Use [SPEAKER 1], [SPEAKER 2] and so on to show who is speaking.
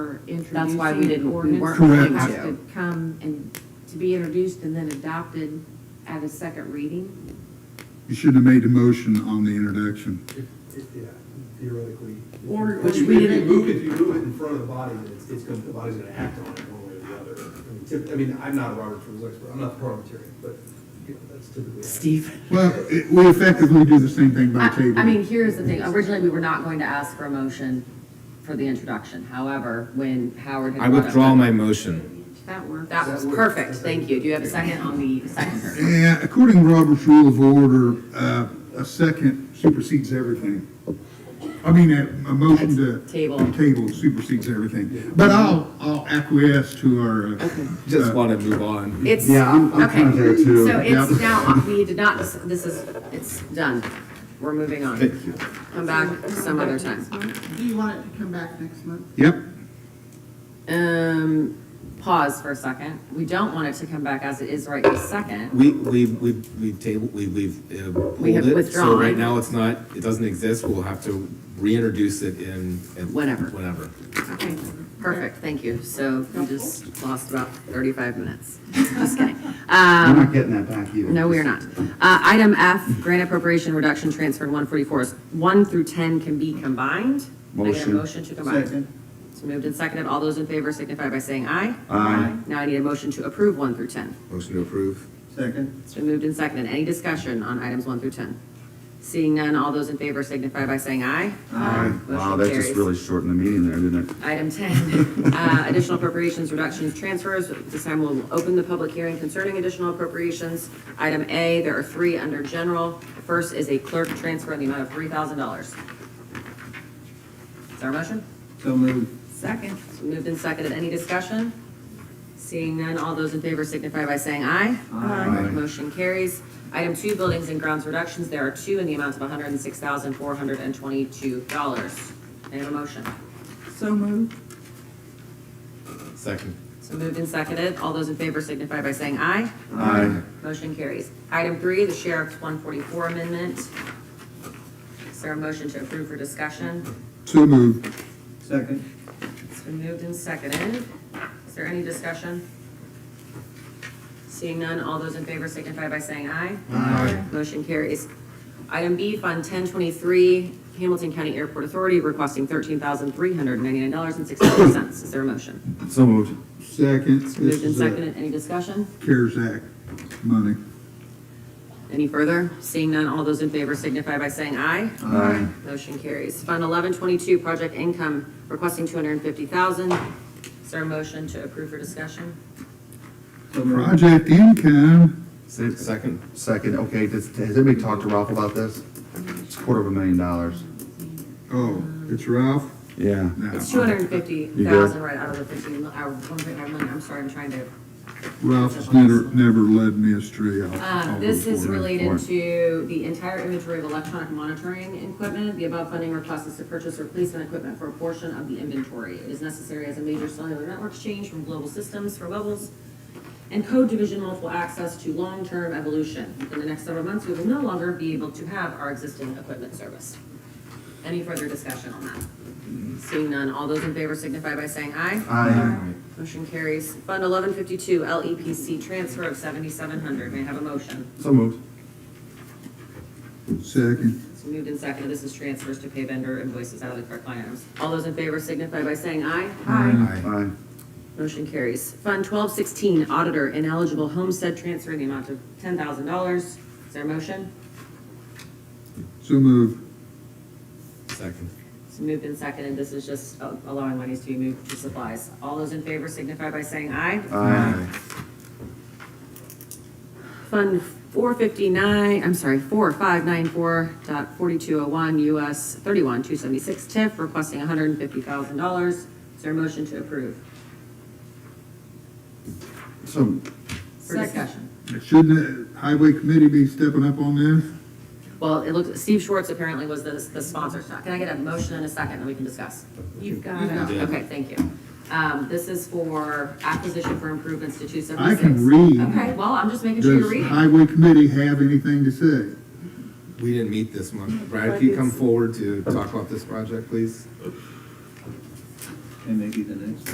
[SPEAKER 1] were introducing.
[SPEAKER 2] That's why we didn't- we
[SPEAKER 1] ordinance,
[SPEAKER 2] weren't
[SPEAKER 1] they
[SPEAKER 3] going
[SPEAKER 1] have
[SPEAKER 2] to.
[SPEAKER 1] Come and, to be introduced and then adopted at a second reading.
[SPEAKER 3] You should have made a motion on the introduction.
[SPEAKER 4] If- if- Yeah, theoretically. if you-
[SPEAKER 1] Or-
[SPEAKER 4] if
[SPEAKER 1] which
[SPEAKER 4] you-
[SPEAKER 1] we
[SPEAKER 4] If
[SPEAKER 1] didn't-
[SPEAKER 4] you move it, if you move it in front of the body, then it's, it's gonna, the body's gonna act on it one way or the other. I mean, typ- I mean, I'm not a Robert Rules expert, I'm not the parliamentarian, but, you know, that's typically.
[SPEAKER 2] Steve.
[SPEAKER 3] Well, it- we effectively do the same thing by
[SPEAKER 2] I
[SPEAKER 3] table.
[SPEAKER 2] I mean, here's the thing, originally, we were not going to ask for a motion for the introduction, however, when Howard had.
[SPEAKER 5] I
[SPEAKER 2] brought up
[SPEAKER 5] withdraw
[SPEAKER 2] the-
[SPEAKER 5] my motion.
[SPEAKER 1] That worked.
[SPEAKER 2] That was perfect, thank you, do you have a second on the second?
[SPEAKER 3] And according to Robert's Rule of Order, uh, a second supersedes everything. I mean, a, a motion to.
[SPEAKER 2] Table.
[SPEAKER 3] Table supersedes everything. But I'll, I'll acquiesce to our. uh,
[SPEAKER 5] Just
[SPEAKER 3] uh,
[SPEAKER 5] want to move on.
[SPEAKER 2] It's,
[SPEAKER 3] Yeah, I'm- I'm
[SPEAKER 2] okay,
[SPEAKER 3] kind of there, too.
[SPEAKER 2] so it's
[SPEAKER 3] Yep.
[SPEAKER 2] now, we did not, dis- this is, it's done, we're moving on.
[SPEAKER 5] Thank you.
[SPEAKER 2] Come back some other time.
[SPEAKER 6] Do you want it to come back next month?
[SPEAKER 3] Yep,
[SPEAKER 2] Um, pause for a second, we don't want it to come back as it is right this second.
[SPEAKER 5] We, we, we, we table, we, we've uh, pulled
[SPEAKER 2] We have
[SPEAKER 5] it, so right
[SPEAKER 2] withdrawn.
[SPEAKER 5] now it's not, it doesn't exist, we'll have to reintroduce it in. in-
[SPEAKER 2] Whenever.
[SPEAKER 5] Whenever.
[SPEAKER 2] Okay, perfect, thank you. So we just lost about 35 minutes. Just kidding. Um,
[SPEAKER 7] We're not getting that back either.
[SPEAKER 2] No, we are not. Uh, Item F, grant appropriation reduction transfer 144, 1 through 10 can be combined. Can I get a
[SPEAKER 7] Motion.
[SPEAKER 2] motion to combine.
[SPEAKER 6] Second.
[SPEAKER 2] It's moved and seconded. All those in favor signify by saying aye.
[SPEAKER 7] Aye.
[SPEAKER 2] Now I need a motion to approve 1 through 10.
[SPEAKER 5] Motion to approve.
[SPEAKER 6] Second.
[SPEAKER 2] It's been moved and seconded. Any discussion on items 1 through 10? Seeing none, all those in favor signify by saying aye.
[SPEAKER 7] Aye. Wow,
[SPEAKER 2] Motion
[SPEAKER 7] that just
[SPEAKER 2] carries.
[SPEAKER 7] really shortened the meeting there, didn't it?
[SPEAKER 2] Item 10, uh, additional appropriations, reductions, transfers. This time we'll open the public hearing concerning additional appropriations. Item A, there are three under general. The First is a clerk transfer in the amount of $3,000. Is there a motion?
[SPEAKER 6] So moved.
[SPEAKER 2] Second. Moved and seconded. Any discussion? Seeing none, all those in favor signify by saying aye.
[SPEAKER 7] Aye.
[SPEAKER 2] Motion carries. Item two, buildings and grounds reductions. There are two in the amount of $106,422. May I have a motion?
[SPEAKER 6] So moved.
[SPEAKER 5] Second.
[SPEAKER 2] So moved and seconded. All those in favor signify by saying aye.
[SPEAKER 7] Aye.
[SPEAKER 2] Motion carries. Item three, the sheriff's one forty-four amendment. Is there a motion to approve for discussion?
[SPEAKER 3] so moved.
[SPEAKER 6] Second.
[SPEAKER 2] It's been moved and seconded. Is there any discussion? Seeing none, all those in favor signify by saying aye. Aye. Motion carries. Item B, Fund ten twenty-three, Hamilton County Airport Authority requesting thirteen thousand three hundred ninety-nine dollars and sixty-four cents. Is there a motion?
[SPEAKER 7] So moved.
[SPEAKER 3] Second,
[SPEAKER 2] It's been
[SPEAKER 3] this
[SPEAKER 2] moved and
[SPEAKER 3] is a
[SPEAKER 2] seconded. Any discussion?
[SPEAKER 3] CARES Act money.
[SPEAKER 2] Any further? Seeing none, all those in favor signify by saying aye.
[SPEAKER 7] Aye.
[SPEAKER 2] Motion carries. Fund eleven twenty-two, project income, requesting two hundred and fifty thousand. Is there a motion to approve for discussion?
[SPEAKER 3] Project income,
[SPEAKER 5] Second.
[SPEAKER 7] Second, okay, does, has anybody talked to Ralph about this? It's a quarter of a million dollars.
[SPEAKER 3] oh, it's Ralph?
[SPEAKER 7] Yeah.
[SPEAKER 3] No.
[SPEAKER 2] It's two hundred and fifty
[SPEAKER 7] You
[SPEAKER 2] thousand
[SPEAKER 7] good?
[SPEAKER 2] right out of the fifteen, or one point five million, I'm sorry, I'm trying to. um,
[SPEAKER 3] Ralph's never, never led me astray. I'll- I'll
[SPEAKER 2] Um,
[SPEAKER 3] go
[SPEAKER 2] this is
[SPEAKER 3] for it.
[SPEAKER 2] related to the entire inventory of electronic monitoring equipment. The above funding request is to purchase replacement equipment for a portion of the inventory. It is necessary as a major cellular network change from global systems for levels and code division multiple access to long-term evolution. In the next several months, we will no longer be able to have our existing equipment serviced. Any further discussion on that? Seeing none, all those in favor signify by saying aye.
[SPEAKER 7] Aye.
[SPEAKER 2] Motion carries. Fund eleven fifty-two, LEPC transfer of seventy-seven hundred. May I have a motion?
[SPEAKER 7] So moved.
[SPEAKER 3] Second,
[SPEAKER 2] It's moved and seconded. This is transfers to pay vendor invoices out of the correct line items. All those in favor signify by saying aye.
[SPEAKER 5] Aye.
[SPEAKER 7] Aye.
[SPEAKER 2] Motion carries. Fund twelve sixteen, auditor ineligible homestead transfer in the amount of ten thousand dollars. Is there a motion?
[SPEAKER 3] so moved.
[SPEAKER 5] Second.
[SPEAKER 2] It's moved and seconded. This is just uh, allowing monies to be moved to supplies. All those in favor signify by saying aye.
[SPEAKER 7] Aye.
[SPEAKER 2] Fund four fifty-nine, I'm sorry, four five nine four dot forty-two oh one, US thirty-one two seventy-six TIF, requesting hundred and fifty thousand dollars. Is there a motion to approve?
[SPEAKER 7] So,
[SPEAKER 2] For discussion.
[SPEAKER 3] Shouldn't the highway committee be stepping up on this?
[SPEAKER 2] Well, it looks, Steve Schwartz apparently was the, the sponsor. So Can I get a motion and a second, and we can discuss?
[SPEAKER 1] You've got it.
[SPEAKER 2] Okay, thank you. Um, this is for acquisition for improvements to two
[SPEAKER 3] I
[SPEAKER 2] seventy-six.
[SPEAKER 3] can read.
[SPEAKER 2] Okay, well, I'm just making sure you're
[SPEAKER 3] Does
[SPEAKER 2] reading.
[SPEAKER 3] highway committee have anything to say?
[SPEAKER 5] We didn't meet this month. Brad, can you come forward to talk about this project, please?
[SPEAKER 7] and maybe the next